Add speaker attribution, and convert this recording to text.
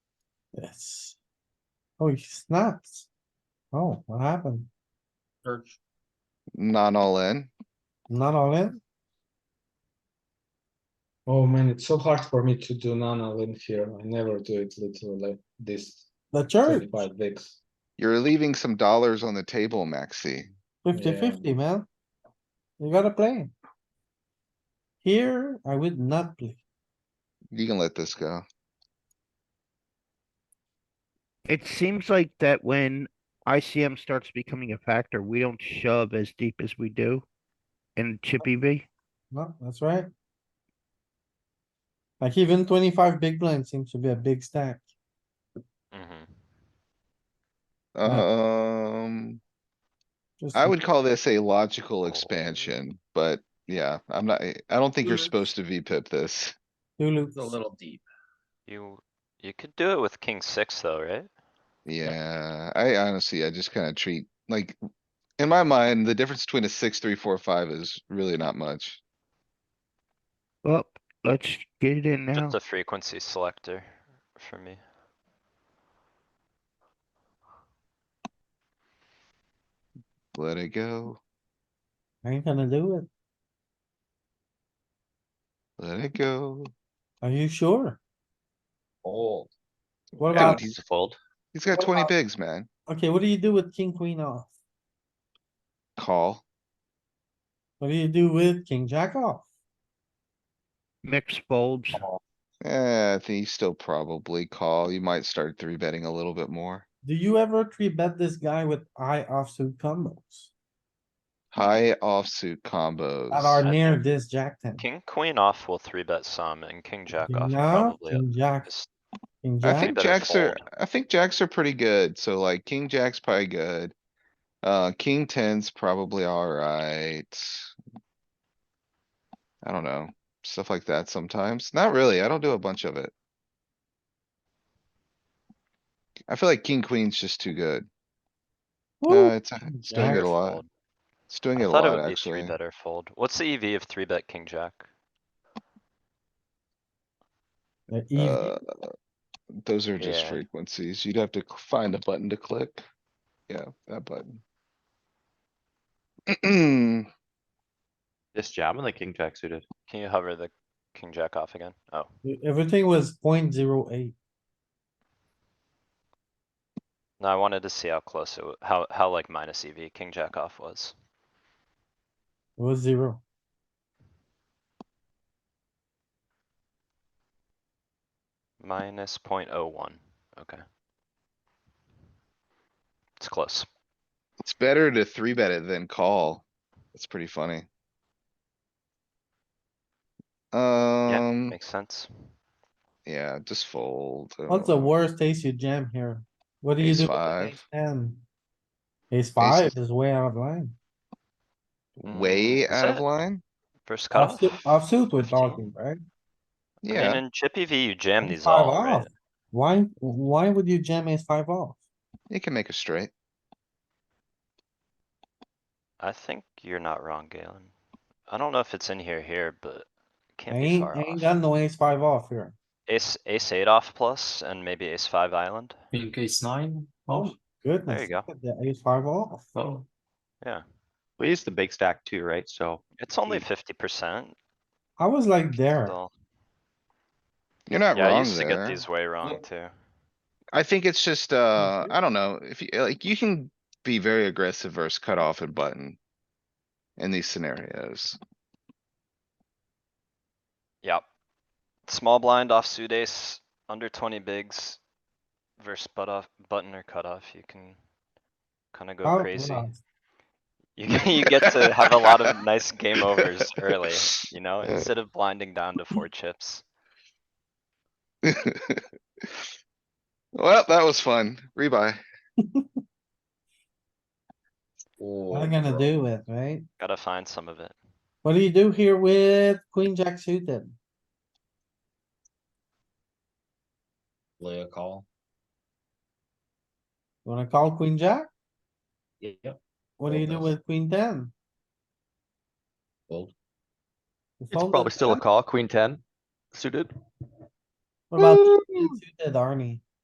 Speaker 1: Yes. Oh, he snaps. Oh, what happened?
Speaker 2: Search.
Speaker 3: Not all in.
Speaker 1: Not all in?
Speaker 2: Oh man, it's so hard for me to do nano in here. I never do it literally like this
Speaker 1: The church,
Speaker 2: thirty-five bigs.
Speaker 3: You're leaving some dollars on the table, Maxi.
Speaker 1: fifty
Speaker 2: Yeah.
Speaker 1: fifty, man. You gotta play. Here, I would not play.
Speaker 3: You can let this go.
Speaker 4: It seems like that when ICM starts becoming a factor, we don't shove as deep as we do in chip EV.
Speaker 1: No, that's right. Like even twenty-five big blind seems to be a big stack.
Speaker 3: Um,
Speaker 1: Just
Speaker 3: I
Speaker 1: a-
Speaker 3: would call this a logical expansion, but yeah, I'm not, I don't think you're supposed to V-pip this.
Speaker 1: Two loops.
Speaker 2: little deep.
Speaker 5: You, you could do it with king six though, right?
Speaker 3: Yeah, I honestly, I just kinda treat, like, in my mind, the difference between a six, three, four, five is really not much.
Speaker 4: Well, let's get it in now.
Speaker 5: Just a frequency selector for me.
Speaker 3: Let it go,
Speaker 1: I ain't gonna do it.
Speaker 3: let it go.
Speaker 1: Are you sure?
Speaker 2: Oh,
Speaker 1: What
Speaker 3: Yeah,
Speaker 1: about,
Speaker 3: he's,
Speaker 5: Fold.
Speaker 3: he's got
Speaker 1: what
Speaker 3: twenty
Speaker 1: about-
Speaker 3: bigs, man.
Speaker 1: okay, what do you do with king, queen off?
Speaker 3: Call.
Speaker 1: What do you do with king, jack off?
Speaker 4: Mix folds.
Speaker 3: Eh, I think you still probably call. You might start three betting a little bit more.
Speaker 1: Do you ever three bet this guy with eye offsuit combos
Speaker 3: High offsuit combos.
Speaker 1: that are
Speaker 5: I
Speaker 1: near
Speaker 5: think-
Speaker 1: this jack ten?
Speaker 5: King, queen off will three bet some and king jack
Speaker 1: King
Speaker 5: off
Speaker 1: off,
Speaker 5: probably. uh,
Speaker 1: king jack,
Speaker 5: is-
Speaker 1: king
Speaker 3: I
Speaker 1: jack,
Speaker 3: think
Speaker 5: better
Speaker 3: jacks are,
Speaker 5: fold.
Speaker 3: I think jacks are pretty good, so like king jack's probably good. Uh, king ten's probably alright. I don't know, stuff like that sometimes. Not really, I don't do a bunch of it. I feel like king queen's just too good. No,
Speaker 5: uh,
Speaker 1: woo,
Speaker 3: it's, it's doing it
Speaker 1: Jacks
Speaker 5: better
Speaker 3: a lot.
Speaker 5: fold.
Speaker 3: It's doing
Speaker 5: I
Speaker 3: it a
Speaker 5: thought it
Speaker 3: lot,
Speaker 5: would be three
Speaker 3: actually.
Speaker 5: better fold. What's the EV of three bet king jack?
Speaker 1: the EV.
Speaker 3: Uh, Those are just
Speaker 5: Yeah.
Speaker 3: frequencies. You'd have to c- find a button to click. Yeah, that button.
Speaker 6: Just jamming the king jack suited.
Speaker 5: Can you hover the king jack off again? Oh,
Speaker 1: Everything was point zero eight.
Speaker 5: no, I wanted to see how close it, wa- how, how like minus EV king jack off was.
Speaker 1: It was zero.
Speaker 5: Minus point oh one, okay. It's close.
Speaker 3: It's better to three bet it than call. That's pretty funny.
Speaker 5: Yeah,
Speaker 3: Um,
Speaker 5: makes sense.
Speaker 3: yeah, just fold. I
Speaker 1: What's
Speaker 3: don't
Speaker 1: the
Speaker 5: uh,
Speaker 3: know.
Speaker 1: worst ace you jam here? What do you
Speaker 3: Ace
Speaker 1: do? with
Speaker 3: five.
Speaker 1: ace Ten. Ace five
Speaker 3: Ace-
Speaker 1: is way out of line.
Speaker 5: Mm,
Speaker 3: Way
Speaker 5: is
Speaker 3: out of
Speaker 5: it?
Speaker 3: line?
Speaker 5: First cutoff?
Speaker 1: Offsuit offsuit we're
Speaker 5: 15.
Speaker 1: talking, right?
Speaker 5: I mean,
Speaker 3: Yeah,
Speaker 5: in Chippy V, you jam
Speaker 1: Ace
Speaker 5: these
Speaker 1: five
Speaker 5: all, right?
Speaker 1: off. Why, why would you jam ace five off?
Speaker 3: you can make a straight.
Speaker 5: I think you're not wrong, Galen. I don't know if it's in here here, but
Speaker 1: I
Speaker 5: can't be
Speaker 1: ain't,
Speaker 5: far
Speaker 1: I ain't
Speaker 5: off.
Speaker 1: got no ace five off here.
Speaker 5: Ace, ace eight off plus and maybe ace five island.
Speaker 6: King ace nine. Oh,
Speaker 1: Goodness.
Speaker 5: There you go.
Speaker 1: look at The ace five off.
Speaker 6: oh.
Speaker 5: Yeah.
Speaker 6: We use the big stack too, right? So
Speaker 5: It's only
Speaker 6: Mm.
Speaker 5: fifty percent
Speaker 1: I was like there.
Speaker 5: still.
Speaker 3: You're not
Speaker 5: Yeah, I
Speaker 3: wrong
Speaker 5: used to get
Speaker 3: there.
Speaker 5: these way wrong
Speaker 3: Look.
Speaker 5: too.
Speaker 3: I think it's just, uh, I don't know, if you, like, you can be very aggressive versus cutoff and button. In these scenarios.
Speaker 5: Yep. Small blind offsuit ace, under twenty bigs. Versus butt off, button or cutoff, you can kinda
Speaker 1: Out
Speaker 5: go
Speaker 1: of
Speaker 5: crazy.
Speaker 1: line.
Speaker 5: You, get- you get to have a lot of nice game overs early, you know, instead of blinding down to four chips.
Speaker 3: Well, that was fun. Rebuy.
Speaker 1: Not gonna do it, right?
Speaker 5: Gotta find some of it.
Speaker 1: What do you do here with queen jack suited?
Speaker 2: Play a call.
Speaker 1: You Wanna call queen jack?
Speaker 2: Yep.
Speaker 1: What do you do
Speaker 2: Fold this.
Speaker 1: with queen ten?
Speaker 2: Fold.
Speaker 1: You
Speaker 6: it's
Speaker 1: fold
Speaker 6: probably
Speaker 1: this
Speaker 6: still a
Speaker 1: jack?
Speaker 6: call, queen ten suited.
Speaker 1: What about queen suited, Arnie?